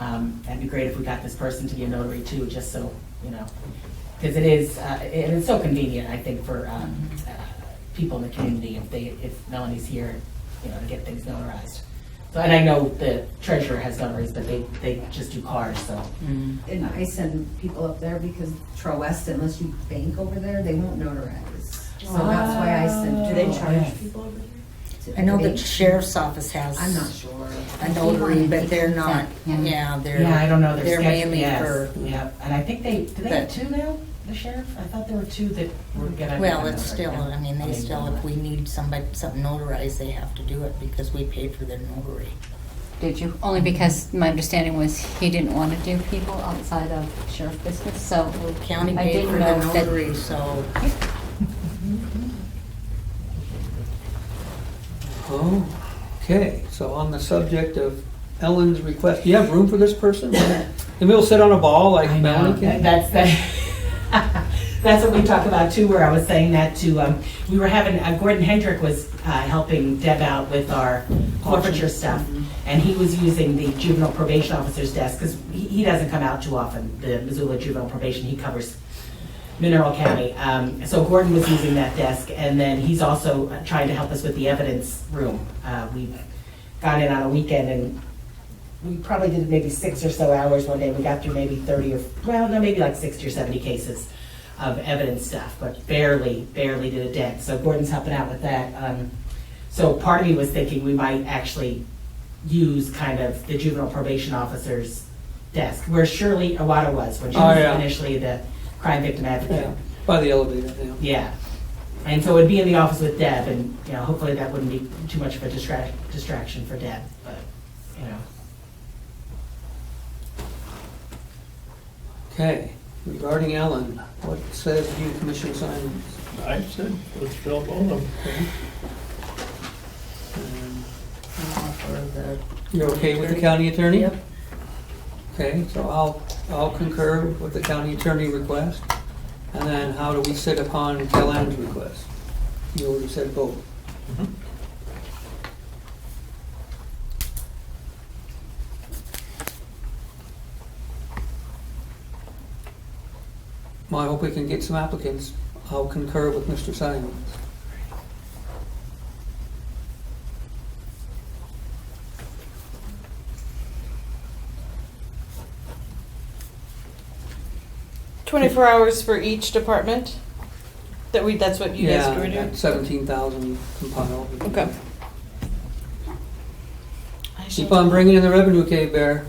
it'd Um, be great if we got this person to be a notary too, just so, you know. Because it is, uh, and it's so convenient, I think, for um, uh, people in the community if they, if Melanie's here, you know, to get things notarized. So, and I know the treasurer has notaries, but they, they just do cars, so. And I send people up there because Trowest, unless you bank over there, they won't notarize. So that's why I send. Do they charge? people over there? I know the sheriff's office has I'm not sure. a notary, but they're not, yeah, they're. Yeah, I don't know, They're they're sketchy, mainly yes, for, yeah, and I think they, do they have But- two now, the sheriff? I thought there were two that were gonna. well, it's still, I mean, Yeah. they still, if we need somebody, something notarized, they have to do it because we paid for their notary. Did you? Only because my understanding was he didn't want to do people outside of sheriff business, so. Well, County I paid didn't for the know that- notary, so. Okay, so on the subject of Ellen's request, do you have room for this person? And we'll sit on a ball like I know, Melanie that- can? that's the, that's what we talked about too, where I was saying that to, um, we were having, uh, Gordon Hendrick was, uh, helping Deb out with our forfeiture mm-hmm. stuff. And he was using the juvenile probation officer's desk, because he, he doesn't come out too often, the Missoula juvenile probation, he covers Mineral County. Um, so Gordon was using that desk, and then he's also uh, trying to help us with the evidence room. Uh, we got in on a weekend and we probably did maybe six or so hours one day. We got through maybe thirty or, well, no, maybe like sixty or seventy cases of evidence stuff, but barely, barely did a dent. So Gordon's helping out with that. Um, so part of me was thinking we might actually use kind of the juvenile probation officer's desk, where Shirley Awada was when she Oh, was yeah. initially the crime victim advocate. Yeah, By the elevator, yeah. Yeah. And so it'd be in the office with Deb, and, you know, hopefully that wouldn't be too much of a distract, distraction for Deb, but, you know. Okay, regarding Ellen, what says you, Commissioner Simon? I said, let's fill both of them. Um, uh, for the- You're okay with the county attorney? Yep. Okay, so I'll, I'll concur with the county attorney request. And then how do we sit upon Kellan's request? You already said both. Mm-hmm. Well, I hope we can get some applicants. I'll concur with Mr. Simons. Twenty-four hours for each department? That we, that's what you guys were Yeah, doing? seventeen thousand compiled. Okay. I Keep shall- on bringing in the revenue, cave bear.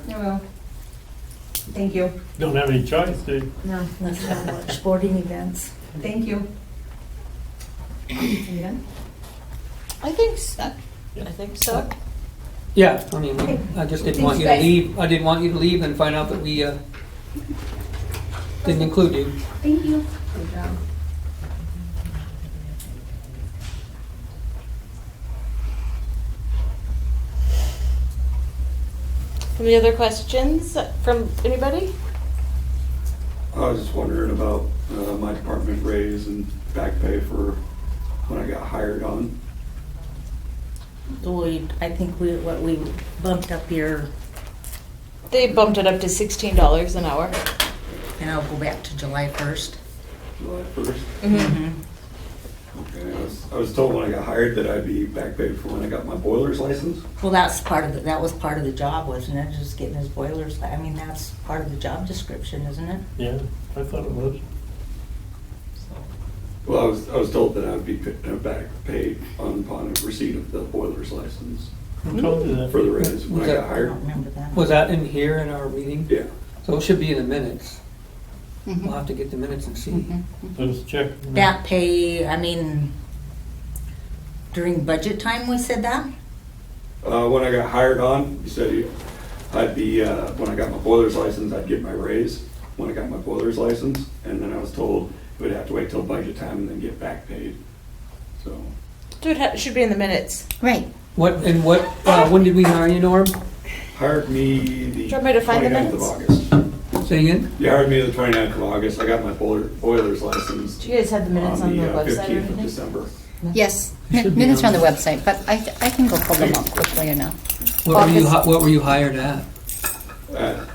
Thank you. Don't have any choice, do you? No, Let's not watch sporting events. thank you. Are you done? I think so. I think so. Yeah, I mean, we- I just didn't want you to Thanks, guys. leave, I didn't want you to leave and find out that we, uh, didn't include you. Thank you. Good job. Any other questions from anybody? I was just wondering about uh, my department raise and back pay for when I got hired on. We, I think we, what, we bumped up your, They bumped it up to sixteen dollars an hour. and I'll go back to July first. July 1st. Okay, I was, I was told when I got hired that I'd be back paid for when I got my boiler's license. Well, that's part of, the that was part of the job, wasn't it? Just getting his boilers, I mean, that's part of the job description, isn't it? Yeah, I thought it was. Well, I was, I was told that I would be pa- uh, back paid on- upon receipt of the boiler's license Who told you for that? the raise when I got I hired. don't remember that. Was that in here in our meeting? Yeah, So it should be in the minutes. We'll Mhm. have to get the minutes and see. Mhm. Let's check. Back pay, I mean, during budget time, we said that? Uh, when I got hired on, you said you- I'd be, uh, when I got my boiler's license, I'd get my raise when I got my boiler's license. And then I was told it would have to wait till budget time and then get back paid. So, So it ha- should be in the minutes. Right, What, and what, uh, when did we hire you, Norm? hired me the Do you want me to find the 29th of August. Say again? You hired me the 29th of August. I got my boiler, boiler's license Do you guys have the minutes on the on the uh, website or 15th of anything? December. yes. It should be Minutes are on the on. website, but I, I can go pull them up quickly enough. What were you, hi- what were you hired at?